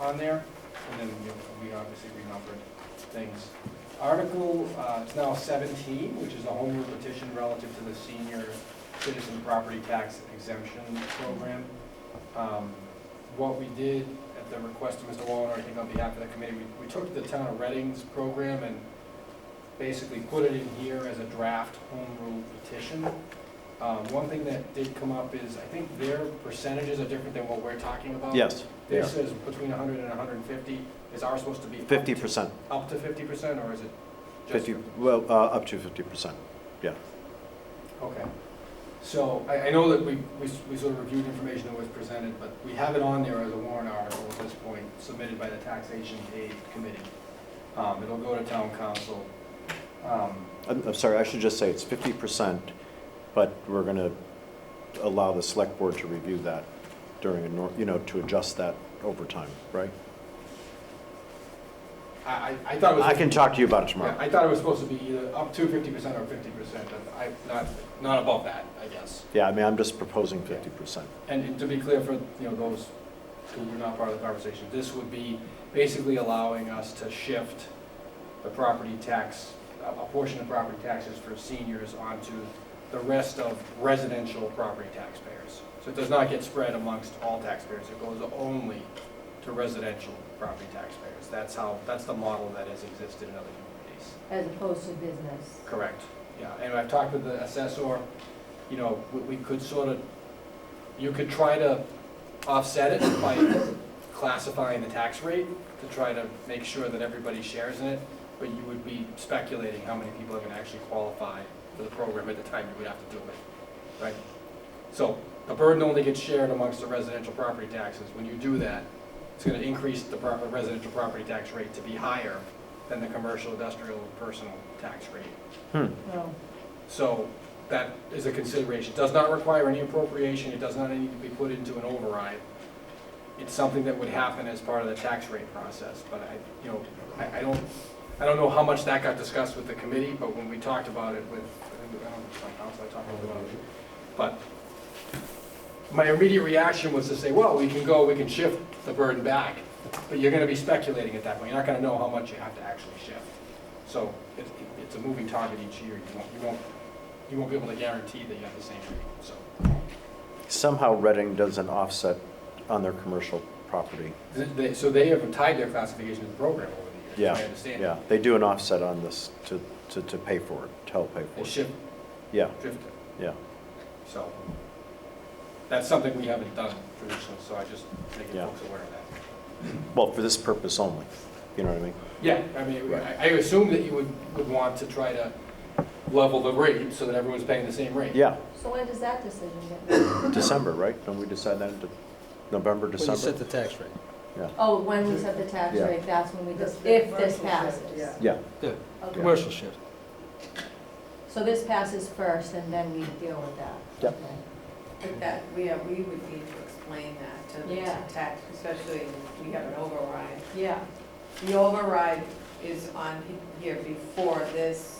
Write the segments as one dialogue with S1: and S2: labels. S1: on there, and then you know, we obviously renumbered things. Article, uh, it's now seventeen, which is a home rule petition relative to the senior citizen property tax exemption program. Um, What we did at the request of Mr. Wallner, I think on behalf of the committee, we, we took the town of Reading's program and basically put it in here as a draft home rule petition. Um, One thing that did come up is, I think their percentages are different than what we're talking about.
S2: Yes,
S1: This is between 100 and 150. Is ours supposed to be? up
S2: fifty
S1: to-
S2: percent,
S1: Up to 50% or is it just?
S2: fifty, well, uh, up to fifty percent.
S1: Okay. So I, I know that we, we s- we sort of reviewed information that was presented, but we have it on there as a warrant article at this point, submitted by the Taxation Aid Committee. Um, It'll go to town council. Um,
S2: I'm, I'm sorry, I should just say it's fifty percent, but we're gonna allow the select board to review that during a nor, you know, to adjust that over time, right?
S1: I, I- I thought it was.
S2: I can talk to you about it
S1: Yeah,
S2: tomorrow.
S1: I thought it was supposed to be either up to 50% or 50%, but I, not, not above that, I guess.
S2: Yeah, I mean, I'm just proposing fifty percent.
S1: And to be clear for, you know, those who were not part of the conversation, this would be basically allowing us to shift the property tax, a a portion of property taxes for seniors onto the rest of residential property taxpayers. So it does not get spread amongst all taxpayers, it goes only to residential property taxpayers. That's how, that's the model that has existed in other communities.
S3: as opposed to business.
S1: Correct, yeah, and I've talked with the assessor, you know, we, we could sort of, you could try to offset it by classifying the tax rate to try to make sure that everybody shares in it, but you would be speculating how many people are gonna actually qualify for the program at the time you would have to do it, right? So, the burden only gets shared amongst the residential property taxes, when you do that, it's gonna increase the proper residential property tax rate to be higher than the commercial, industrial, personal tax rate.
S2: Hmm,
S3: Well,
S1: So that is a consideration. It does not require any appropriation, it does not need to be put into an override. It's something that would happen as part of the tax rate process, but I, you know, I, I don't, I don't know how much that got discussed with the committee, but when we talked about it with, I think, I don't know, if my council, I talked about it. But my immediate reaction was to say, well, we can go, we can shift the burden back, but you're gonna be speculating at that point. You're not gonna know how much you have to actually shift. So it's, it's a moving target each year. You won't, you won't you won't be able to guarantee that you have the same rate, so.
S2: somehow Reading does an offset on their commercial property.
S1: Th- they- So they have tied their classification to the program over the years,
S2: Yeah,
S1: I understand.
S2: Yeah, they do an offset on this to, to, to pay for it, to help pay for
S1: They
S2: it.
S1: shift,
S2: Yeah,
S1: drifted,
S2: yeah.
S1: so. That's something we haven't done traditionally, so I just make
S2: Yeah.
S1: folks aware of that.
S2: Well, for this purpose only, you know what I mean?
S1: Yeah, I mean, I I assume that you would, would want to try to level the rate so that everyone's paying the same rate.
S2: Yeah,
S3: so when does that decision get made?
S2: December, right? Don't we decide that into November,
S4: When you set
S2: December?
S4: the tax rate.
S3: Oh, when we set the tax
S2: Yeah.
S3: rate, that's when we, just
S5: That's
S3: if
S5: the
S3: this
S5: commercial
S3: passes.
S5: shift, yeah.
S2: Yeah,
S3: Okay.
S4: Commercial shift.
S3: So this passes first, and then we deal with that?
S2: Yep.
S3: Okay.
S5: But that, we, uh, we would need to explain that to the
S3: Yeah.
S5: to tax, especially if we have an override.
S3: Yeah,
S5: The override is on he- here before this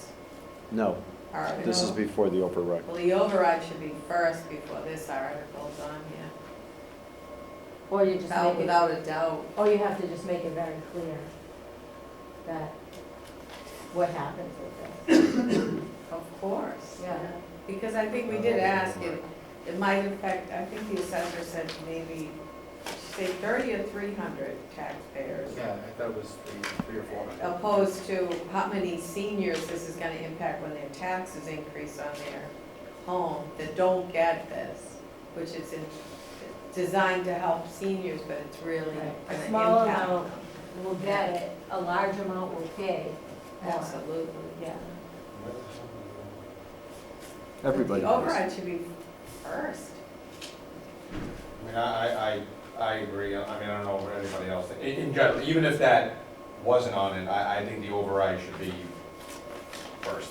S2: no,
S5: article.
S2: this is before the override.
S5: Well, the override should be first before this article's on here,
S3: or you just
S5: without,
S3: make it,
S5: without a doubt.
S3: or you have to just make it very clear that what happens with this.
S5: Of course.
S3: Yeah.
S5: Because I think we did ask, it, it might affect, I think the assessor said maybe, say thirty or three hundred taxpayers.
S1: Yeah, I thought it was three, three or four hundred.
S5: opposed to how many seniors this is gonna impact when their taxes increase on their home that don't get this, which is in- designed to help seniors, but it's really
S3: Right.
S5: gonna
S3: A small
S5: impact
S3: amount.
S5: them.
S3: We'll get it, a large amount will pay. more.
S5: Absolutely.
S3: Yeah,
S2: Everybody
S5: The
S2: does.
S5: override should be first.
S6: I mean, I, I, I I agree,
S1: Uh,
S6: I mean, I don't know what anybody else, thinks. in, in general, even if that wasn't on it, I, I think the override should be first.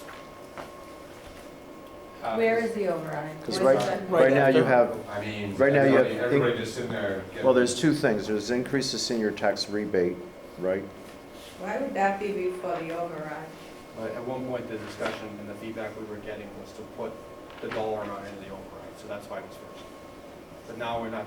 S1: Uh,
S3: where is the override?
S2: 'Cause
S3: Where's
S2: right-
S3: the-
S2: Right now you have,
S6: I mean,
S2: Right now you have-
S6: everybody, everybody just sitting there. getting-
S2: well, there's two things. There's increase the senior tax rebate, right?
S5: Why would that be before the override?
S1: But at one point, the discussion and the feedback we were getting was to put the dollar amount into the override, so that's why it was first. But now we're not